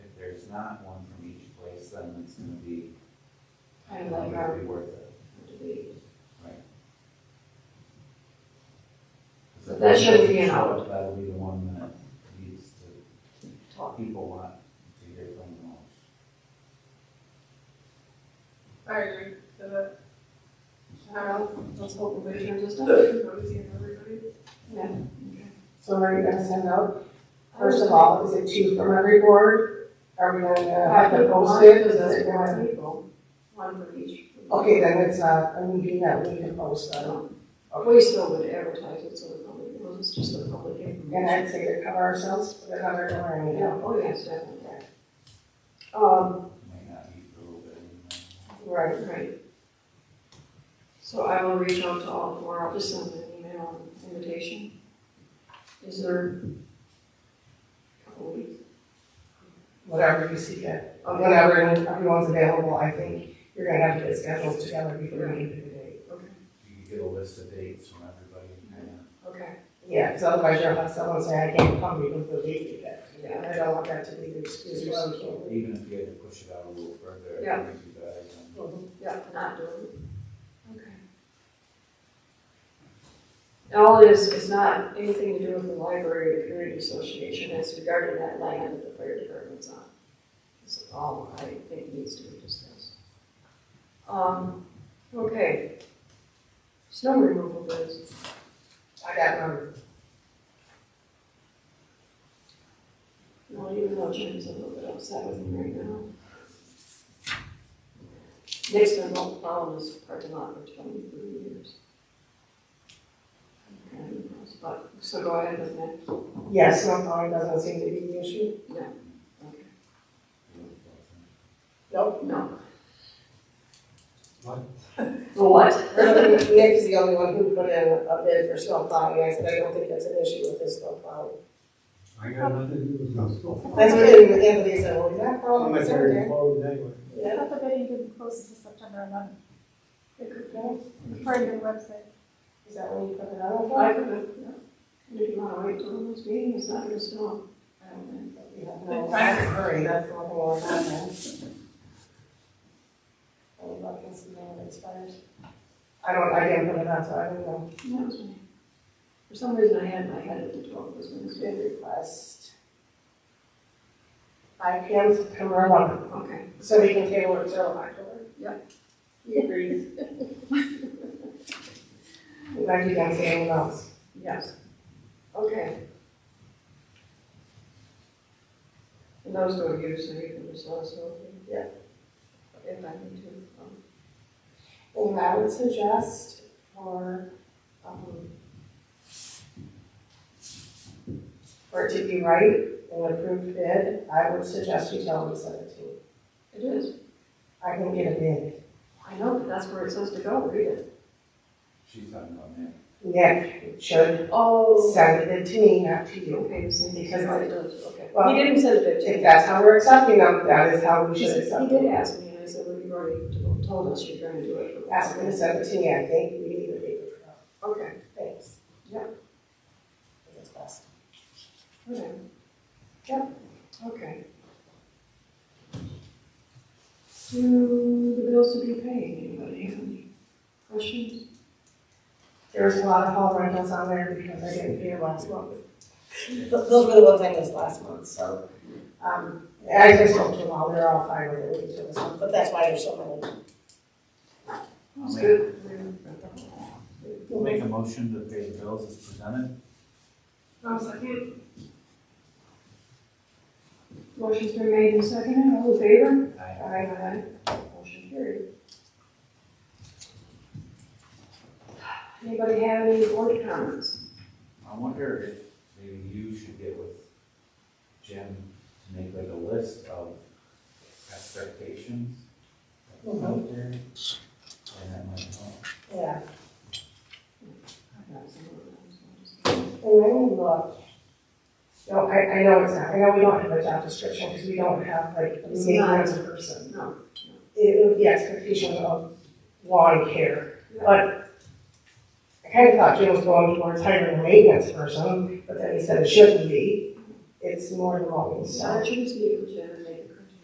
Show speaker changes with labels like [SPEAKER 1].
[SPEAKER 1] not one from each place, then it's gonna be.
[SPEAKER 2] Kind
[SPEAKER 3] uh,
[SPEAKER 2] of like our-
[SPEAKER 1] Be worth it.
[SPEAKER 2] debate.
[SPEAKER 1] So
[SPEAKER 2] That shouldn't be an
[SPEAKER 1] that'll- That'll be the one that needs to,
[SPEAKER 2] Talk.
[SPEAKER 1] people want to hear from the most.
[SPEAKER 4] I agree to that.
[SPEAKER 2] I don't know, let's hope nobody turns us down.
[SPEAKER 4] Noticing everybody.
[SPEAKER 3] So are you gonna send out, first of all, is it two from every board? Are we gonna have to post it? Is it gonna-
[SPEAKER 2] people. One for each.
[SPEAKER 3] Okay, then it's not a meeting that we can post on.
[SPEAKER 2] We still would advertise it so the public knows it's just the public
[SPEAKER 3] And
[SPEAKER 2] information.
[SPEAKER 3] I'd say to cover ourselves, put it under our
[SPEAKER 2] Yeah,
[SPEAKER 3] email.
[SPEAKER 2] oh yes, definitely. Um,
[SPEAKER 1] Might not be for a little bit. you
[SPEAKER 3] Right.
[SPEAKER 2] right. So I will reach out to all four, I'll just send an email invitation. Is there? a Couple weeks.
[SPEAKER 3] Whatever you see Um, it, whenever everyone's available, I think you're gonna have to get schedules together before you meet today.
[SPEAKER 1] know. You could get a list of dates from everybody and kind of
[SPEAKER 2] Okay,
[SPEAKER 3] Yeah, because otherwise you'll have someone say, I can't come because the date you get. And I don't want that to be the excuse why we can't.
[SPEAKER 1] Even if you had to push it out a little further, I
[SPEAKER 2] Yeah.
[SPEAKER 1] think you guys, um,
[SPEAKER 2] yeah, not doing it. Okay. And all it is, it's not anything to do with the library or the community association, it's regarding that land that the fire department's on. This is all I think needs to be discussed. Um, okay. Snow removal bids,
[SPEAKER 3] I got numbers.
[SPEAKER 2] not even though Jim's a little bit upset with me right now. Nick's been following this parking lot for twenty-three years. And, but- so go ahead with that.
[SPEAKER 3] Yes, no, probably doesn't seem to be the issue.
[SPEAKER 2] Okay.
[SPEAKER 3] Nope.
[SPEAKER 2] No.
[SPEAKER 1] What?
[SPEAKER 2] The what?
[SPEAKER 3] Nick's the only one who put in a bid for snow plowing, I said, I don't think that's an issue with his snow plowing.
[SPEAKER 5] I got nothing to do with no school.
[SPEAKER 3] That's what Anthony said, well, is that problem?
[SPEAKER 5] My parents closed anyway.
[SPEAKER 3] Yeah.
[SPEAKER 6] That's a bidding didn't close until September eleventh. It could go, according to the website.
[SPEAKER 3] Is that when you put it on?
[SPEAKER 2] I could, yeah. If you wanna wait till this meeting, it's not gonna snow. I don't think.
[SPEAKER 3] We have no hurry, that's the whole thing on that. I would love to see when it expires. I don't, I didn't put it on, so I don't know.
[SPEAKER 2] And that was me. For some reason, I had in my head at the twelve was when it's
[SPEAKER 3] Bid request. Five P M September eleventh,
[SPEAKER 2] Okay.
[SPEAKER 3] so we can table it till October.
[SPEAKER 2] He agrees.
[SPEAKER 3] We'd like you guys to anything else.
[SPEAKER 2] Yes. Okay. And those go to you, so you can just let us know. if you-
[SPEAKER 3] Yeah.
[SPEAKER 2] If I need to. um,
[SPEAKER 3] And I would suggest for, um, for it to be right, an approved bid, I would suggest you tell them seventeen.
[SPEAKER 2] It is.
[SPEAKER 3] I can get a bid.
[SPEAKER 2] I know, but that's where it says to go, read it.
[SPEAKER 1] she's talking about that.
[SPEAKER 3] Nick should
[SPEAKER 2] Oh.
[SPEAKER 3] send it to me, not to you.
[SPEAKER 2] Okay, so he
[SPEAKER 3] Because I-
[SPEAKER 2] it does, okay.
[SPEAKER 3] Well,
[SPEAKER 2] He didn't send it to me.
[SPEAKER 3] If that's how we're accepting them, that is how we
[SPEAKER 2] He
[SPEAKER 3] should
[SPEAKER 2] said- he
[SPEAKER 3] accept
[SPEAKER 2] did
[SPEAKER 3] them.
[SPEAKER 2] ask me, and I said, well, you already told us you're gonna do it. for
[SPEAKER 3] Ask them to send it to me, I think we need a paper trail.
[SPEAKER 2] Okay,
[SPEAKER 3] Thanks.
[SPEAKER 2] Yeah.
[SPEAKER 3] I think it's best.
[SPEAKER 2] okay. Hmm. Yep, okay. Do the bills to be paid, anybody have any questions?
[SPEAKER 3] There was a lot of hall rentals on there because I didn't pay last month. Th- Those were the ones I missed last month, so. Um, I just told them all, they're all fine with it, we took this one, but that's why there's so many.
[SPEAKER 2] That's good.
[SPEAKER 1] Make a motion to pay the bills as presented.
[SPEAKER 4] Um, second,
[SPEAKER 2] Motion's been made and seconded, all in favor?
[SPEAKER 1] I,
[SPEAKER 2] Aye, aye. Motion carried. Anybody have any board comments?
[SPEAKER 1] I wonder if maybe you should get with Jim to make like a list of expectations. that's out there, And that might help.
[SPEAKER 3] Yeah,
[SPEAKER 2] I've got some of those, so I'll just-
[SPEAKER 3] And then we look. No, I, I know it's not, I know we don't have a job description, because we don't have like a
[SPEAKER 2] It's
[SPEAKER 3] name
[SPEAKER 2] not.
[SPEAKER 3] as a person.
[SPEAKER 2] No, no.
[SPEAKER 3] It would be expectation of lawn care,
[SPEAKER 2] Yeah.
[SPEAKER 3] but I kind of thought Jim was going towards hiring a maintenance person, but then he said it shouldn't be. It's more than lawn,
[SPEAKER 2] So
[SPEAKER 3] so.
[SPEAKER 2] I shouldn't speak for Jen,